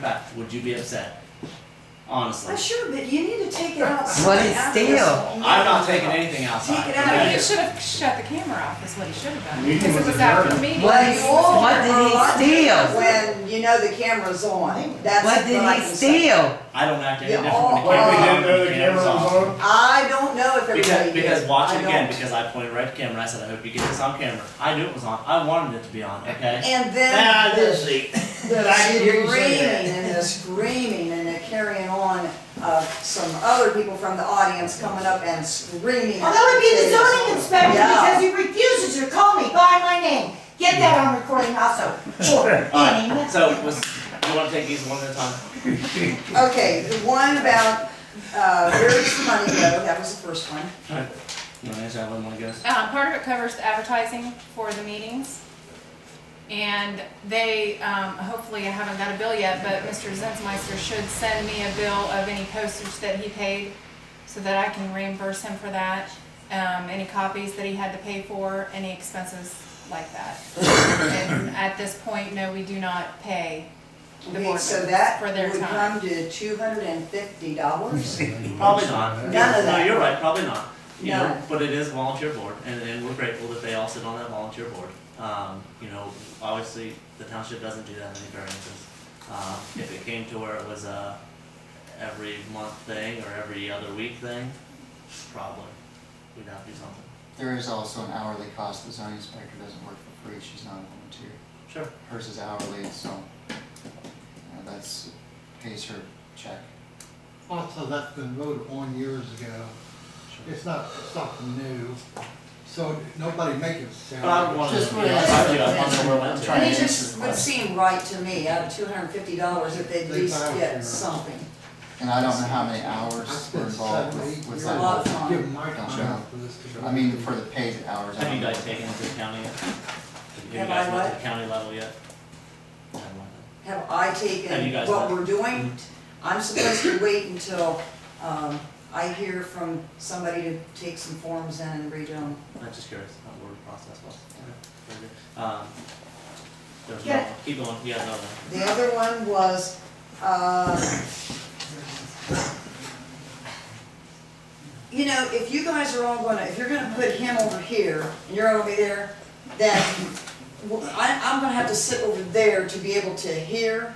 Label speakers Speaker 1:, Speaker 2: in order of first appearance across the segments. Speaker 1: back, would you be upset? Honestly.
Speaker 2: Well, sure, but you need to take it out.
Speaker 3: What is steel?
Speaker 1: I'm not taking anything outside.
Speaker 2: Take it
Speaker 4: But
Speaker 2: out.
Speaker 4: he should have shut the camera off, is what he should have done.
Speaker 5: Meeting
Speaker 4: Because it
Speaker 5: was
Speaker 4: was after the
Speaker 5: adjourned.
Speaker 4: meeting.
Speaker 3: What is-
Speaker 2: Or-
Speaker 3: what did
Speaker 2: or
Speaker 3: he
Speaker 2: like
Speaker 3: steal?
Speaker 2: When you know the camera's on, that's
Speaker 3: What
Speaker 2: what I
Speaker 3: did he
Speaker 2: can say.
Speaker 3: steal?
Speaker 1: I don't act any
Speaker 2: Yeah,
Speaker 1: different when the camera's on.
Speaker 2: all- all-
Speaker 5: Oh, Well, we
Speaker 6: uh,
Speaker 5: didn't know the
Speaker 1: when
Speaker 5: camera was on.
Speaker 2: I don't know if everybody
Speaker 1: Because,
Speaker 2: did.
Speaker 1: because watch
Speaker 2: I
Speaker 1: it again,
Speaker 2: don't.
Speaker 1: because I pointed right to camera, I said, I hope you get this on camera. I knew it was on, I wanted it to be on, okay?
Speaker 2: And
Speaker 1: Ah,
Speaker 2: then
Speaker 1: this
Speaker 2: the
Speaker 1: seat.
Speaker 2: the
Speaker 5: I hear you say that.
Speaker 2: screaming and the screaming and the carrying on of some other people from the audience coming up and screaming.
Speaker 7: Well, that would be the zoning inspector
Speaker 2: Yeah.
Speaker 7: because he refuses to call me by my name. Get that on recording also. Sure.
Speaker 1: Alright, so was, you wanna take these one at a time?
Speaker 2: Okay, the one about, uh, where's the money go, that was the first one.
Speaker 1: You wanna answer that one, one goes?
Speaker 4: Um, part of it covers the advertising for the meetings. And they, um, hopefully, I haven't got a bill yet, but Mr. Zinsmeister should send me a bill of any postage that he paid so that I can reimburse him for that, um, any copies that he had to pay for, any expenses like that. And at this point, no, we do not pay the
Speaker 2: Okay,
Speaker 4: board
Speaker 2: so
Speaker 4: members
Speaker 2: that
Speaker 4: for their
Speaker 2: would
Speaker 4: time.
Speaker 2: come to two hundred and fifty dollars.
Speaker 1: Probably not.
Speaker 2: None of
Speaker 1: No,
Speaker 2: that.
Speaker 1: you're right, probably not. You know,
Speaker 2: None.
Speaker 1: but it is a volunteer board, and, and we're grateful that they all sit on that volunteer board. Um, you know, obviously, the township doesn't do that many variances. Uh, if it came to where it was a every month thing or every other week thing, probably, we'd have to do something.
Speaker 8: There is also an hourly cost, the zoning inspector doesn't work for free, she's not a volunteer.
Speaker 1: Sure.
Speaker 8: Hers is hourly, so, you know, that's, pays her check.
Speaker 6: Also, that's been voted on years ago. It's not something new, so nobody make it
Speaker 1: But I would
Speaker 6: sound.
Speaker 1: want to,
Speaker 8: Just
Speaker 1: you
Speaker 8: for-
Speaker 1: know, I'd do it on the
Speaker 8: I'm
Speaker 1: went
Speaker 8: trying
Speaker 1: to.
Speaker 8: to
Speaker 2: And it
Speaker 8: answer
Speaker 2: just
Speaker 8: the
Speaker 2: would
Speaker 8: question.
Speaker 2: seem right to me, out of two hundred and fifty dollars, if they at
Speaker 6: They
Speaker 2: least
Speaker 6: found
Speaker 2: get
Speaker 6: you.
Speaker 2: something.
Speaker 8: And I don't know how many
Speaker 6: I
Speaker 8: hours were
Speaker 6: spent
Speaker 8: involved
Speaker 6: seven, eight
Speaker 8: with, with
Speaker 6: years
Speaker 8: that.
Speaker 2: Well,
Speaker 8: work.
Speaker 2: work.
Speaker 6: giving my time
Speaker 8: Gotcha.
Speaker 6: for this to go.
Speaker 8: I mean, for the paid hours. I
Speaker 1: Have you
Speaker 8: don't know.
Speaker 1: guys taken into account yet? Have you
Speaker 2: Have
Speaker 1: guys
Speaker 2: I
Speaker 1: went to
Speaker 2: what?
Speaker 1: the county level yet? Never mind.
Speaker 2: Have I
Speaker 1: Have you
Speaker 2: taken
Speaker 1: guys
Speaker 2: what
Speaker 1: met?
Speaker 2: we're doing? I'm supposed to wait until, um, I hear from somebody to take some forms in and read them.
Speaker 1: I'm just curious how the word process was. Very good. Um, There's
Speaker 7: Yeah.
Speaker 1: no, keep going, you have another one.
Speaker 2: The other one was, uh, you know, if you guys are all gonna, if you're gonna put him over here, and you're over there, then w- I, am gonna have to sit over there to be able to hear.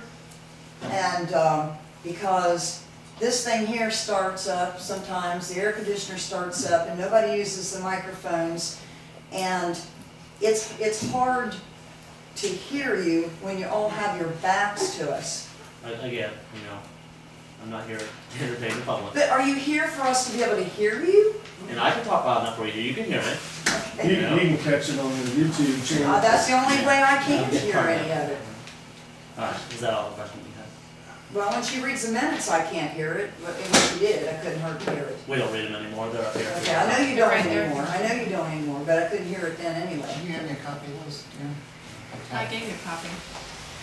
Speaker 2: And, um, because this thing here starts up sometimes, the air conditioner starts up, and nobody uses the microphones. And it's, it's hard to hear you when you all have your backs to us.
Speaker 1: A- Again, you know, I'm not here to entertain the public.
Speaker 2: But are you here for us to be able to hear you?
Speaker 1: And I can talk loud enough for you, you can hear it.
Speaker 5: You, you can catch it on the YouTube
Speaker 2: Uh,
Speaker 5: channel.
Speaker 2: that's the only way I can hear any of it.
Speaker 1: Alright, is that all the questions you have?
Speaker 2: Well, when she reads the minutes, I can't hear it, but if she did, I couldn't hardly hear it.
Speaker 1: We don't read them anymore, they're up here.
Speaker 2: Okay, I know you don't
Speaker 4: Right there.
Speaker 2: anymore, I know you don't anymore, but I couldn't hear it then
Speaker 8: Do
Speaker 2: anyway.
Speaker 8: you have any copy of those, Darren?
Speaker 4: I gave you a copy.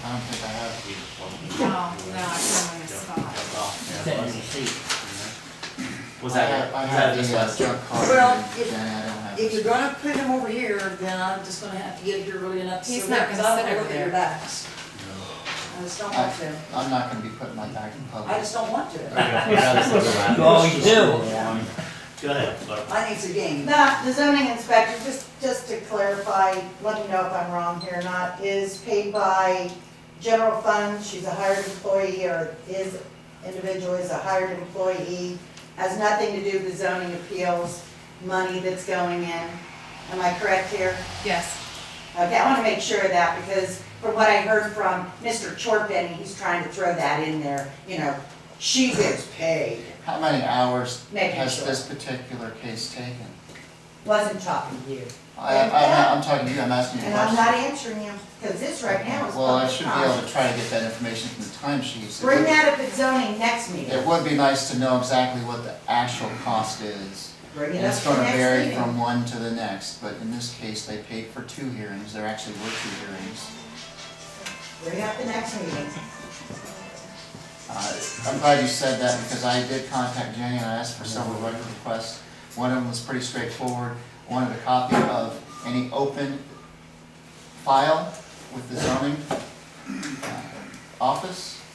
Speaker 8: I don't think I have.
Speaker 1: We just want to-
Speaker 4: Oh, No, no, I
Speaker 2: Oh,
Speaker 4: put them in a
Speaker 1: Don't-
Speaker 4: spot.
Speaker 1: don't laugh. Yeah,
Speaker 3: Sitting in
Speaker 1: was-
Speaker 3: the seat.
Speaker 1: you know. Was
Speaker 8: I have-
Speaker 1: that,
Speaker 8: I
Speaker 1: was
Speaker 8: have
Speaker 1: that just
Speaker 8: the, uh,
Speaker 1: last?
Speaker 8: junk card,
Speaker 2: Well,
Speaker 8: and
Speaker 2: if-
Speaker 8: then I don't
Speaker 2: If
Speaker 8: have. this.
Speaker 2: you're gonna put him over here, then I'm just gonna have to get here really enough to
Speaker 4: He's
Speaker 2: sit
Speaker 4: not
Speaker 2: there, 'cause
Speaker 4: gonna
Speaker 2: I
Speaker 4: sit
Speaker 2: don't
Speaker 4: over
Speaker 2: look at your
Speaker 4: there.
Speaker 2: backs. I just don't want to,
Speaker 8: I'm not gonna be putting my back in public.
Speaker 2: I just don't want to.
Speaker 3: Oh, you do?
Speaker 1: Go ahead, but
Speaker 2: I need some game.
Speaker 7: Now, the zoning inspector, just, just to clarify, let me know if I'm wrong here or not, is paid by general fund, she's a hired employee, or is, individual is a hired employee, has nothing to do with zoning appeals, money that's going in. Am I correct here?
Speaker 4: Yes.
Speaker 7: Okay, I want to make sure of that, because from what I heard from Mr. Chorpen, he's trying to throw that in there, you know, she gets paid,
Speaker 8: How many hours
Speaker 7: Making
Speaker 8: has
Speaker 7: sure.
Speaker 8: this particular case taken?
Speaker 7: wasn't talking to you.
Speaker 8: I, I'm, not- I'm talking to you, I'm asking you a
Speaker 7: And I'm
Speaker 8: question.
Speaker 7: not answering him, because this right now is
Speaker 8: Well, I
Speaker 7: public
Speaker 8: should be able
Speaker 7: comment.
Speaker 8: to try to get that information from the timesheets. It
Speaker 7: Bring
Speaker 8: would-
Speaker 7: that up at zoning next meeting.
Speaker 8: It would be nice to know exactly what the actual cost is.
Speaker 7: Bring
Speaker 8: And
Speaker 7: it up
Speaker 8: it's
Speaker 7: at the
Speaker 8: gonna
Speaker 7: next
Speaker 8: vary
Speaker 7: meeting.
Speaker 8: from one to the next, but in this case, they paid for two hearings, there actually were two hearings.
Speaker 7: Bring it up the next meeting.
Speaker 8: Uh, I'm glad you said that, because I did contact Jenny and I asked for several record requests. One of them was pretty straightforward, wanted a copy of any open file with the zoning uh, office.